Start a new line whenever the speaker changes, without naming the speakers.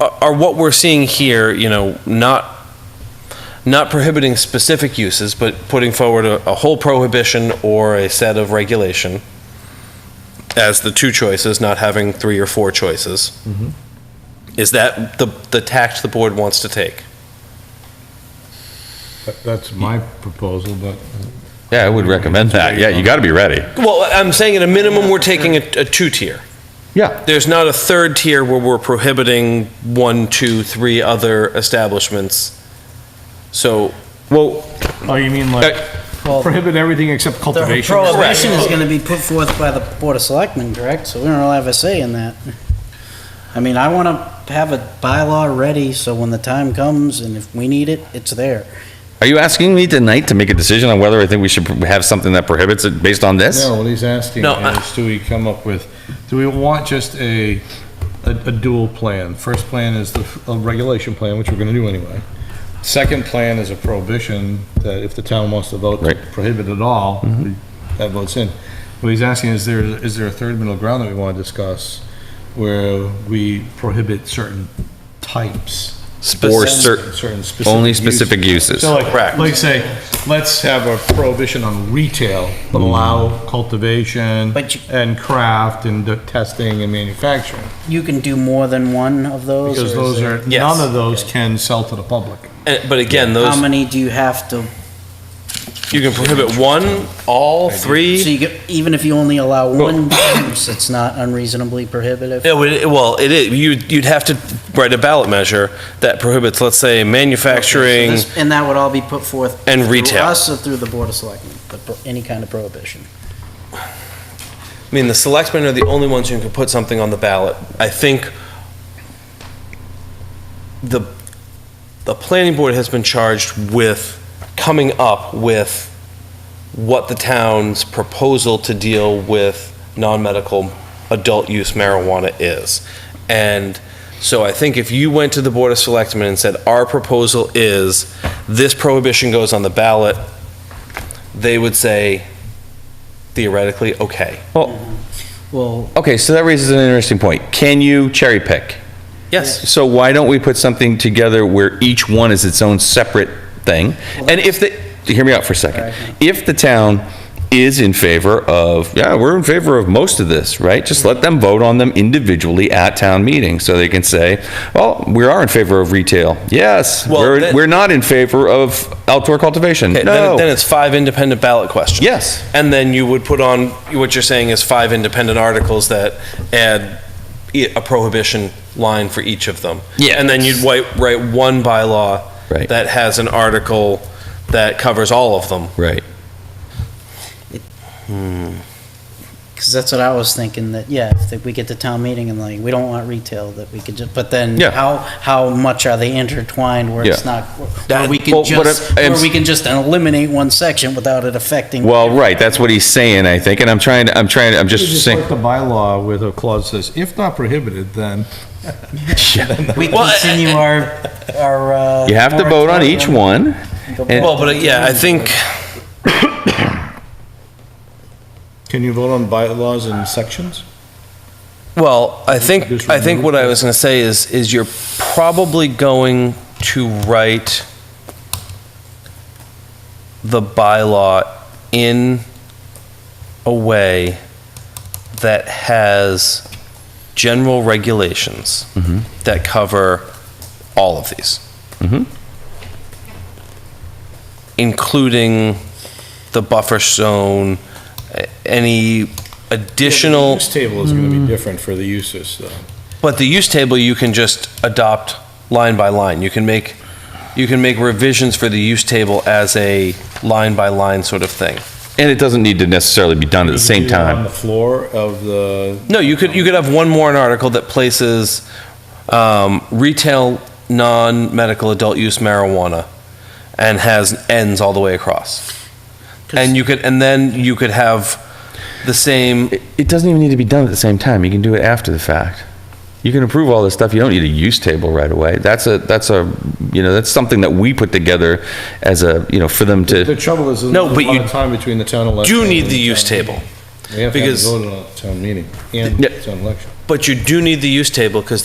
are, are what we're seeing here, you know, not, not prohibiting specific uses, but putting forward a, a whole prohibition or a set of regulation as the two choices, not having three or four choices? Is that the, the tact the board wants to take?
That- That's my proposal, but
Yeah, I would recommend that. Yeah, you got to be ready.
Well, I'm saying at a minimum, we're taking a, a two-tier.
Yeah.
There's not a third tier where we're prohibiting one, two, three other establishments. So,
Well,
Oh, you mean like prohibit everything except
The
cultivation?
prohibition is gonna be put forth by the Board of Selectmen, correct? So we don't really have a say in that. I mean, I wanna have a bylaw ready, so when the time comes and if we need it, it's there.
are you asking me tonight to make a decision on whether I think we should have something that prohibits it based on this?
No, what he's asking
No, I-
is, do we come up with, do we want just a, a a dual plan? First plan is the f- a regulation plan, which we're gonna do anyway. Second plan is a prohibition, that if the town wants to vote to
Right.
prohibit it all, we- that votes in. What he's asking is there, is there a third middle ground that we wanna discuss where we prohibit certain types?
Speci-
Or cer-
Certain specific
only
uses.
specific uses.
So like,
Correct.
like say, let's have a prohibition on retail, but allow cultivation
But you-
and craft and the testing and manufacturing.
You can do more than one of those?
Because
or
those
is it-
are,
Yes.
none of those can sell to the public.
eh, but again,
How
those,
many do you have to,
you can prohibit one, all,
so
three.
you get, even if you only allow one use, it's not unreasonably prohibitive?
Yeah, well, it- Well, it is, you'd, you'd have to write a ballot measure that prohibits, let's say, manufacturing.
So this- And that would all be put forth?
And
through
retail.
us or through the Board of Selectmen, the pro- any kind of prohibition?
I mean, the selectmen are the only ones who can put something on the ballot. I think the, the planning board has been charged with coming up with what the town's proposal to deal with non-medical adult use marijuana is. And so I think if you went to the Board of Selectmen and said, our proposal is, this prohibition goes on the ballot, they would say theoretically, okay.
Well,
Okay, so that raises an interesting point. Can you cherry pick?
Yes.
So why don't we put something together where each one is its own separate thing? And if the, hear me out for a second. If the town is in favor of, yeah, we're in favor of most of this, right? Just let them vote on them individually at town meeting, so they can say, well, we are in favor of retail. Yes,
Well,
we're,
then-
we're not in favor of outdoor cultivation.
Okay, then,
No.
then it's five independent ballot questions.
Yes.
And then you would put on, what you're saying is five independent articles that add e- a prohibition line for each of them.
Yeah.
And then you'd wi- write one bylaw
Right.
that has an article that covers all of them.
Right.
Because that's what I was thinking, that, yeah, if that we get to town meeting and like, we don't want retail, that we could just, but then
Yeah.
how, how much are they intertwined where it's
Yeah.
not, where we
Well,
can
but
just,
I- I'm
where
s-
we can just eliminate one section without it affecting?
Well, right, that's what he's saying, I think, and I'm trying, to I'm trying, to I'm
You
just
just
saying.
like the bylaw with a clause says, if not prohibited, then.
We
Well, I-
continue our, our, uh.
You have to vote on each one.
moratorium. Go
and-
back
Well,
to
but
the
yeah, I
drawing
think,
Can you vote on bylaws in sections?
well, I think,
Just
I think what I
remove-
was going to say is, is you're probably going to write the bylaw in a way that has general regulations that cover all of these. Including the buffer zone, a- any additional,
Use table is gonna be different for the uses, though.
but the use table, you can just adopt line by line. You can make, you can make revisions for the use table as a line by line sort of thing.
And it doesn't need to necessarily be done at the same
Do it On
time.
the floor of the
No, you could, you could have one more an article that places um, retail, non-medical adult use marijuana and has ends all the way across. And you could, and then you could have the same,
It it doesn't even need to be done at the same time. You can do it after the fact. You can approve all this stuff. You don't need a use table right away. That's a, that's a, you know, that's something that we put together as a, you know, for them
The
to,
trouble is, there's a
No, but
lot
you
of time between the town election.
do need
and
the use
town
table,
meeting. We have to have it
because-
voted on at the town meeting and
Yeah.
town election.
but you do need the use table because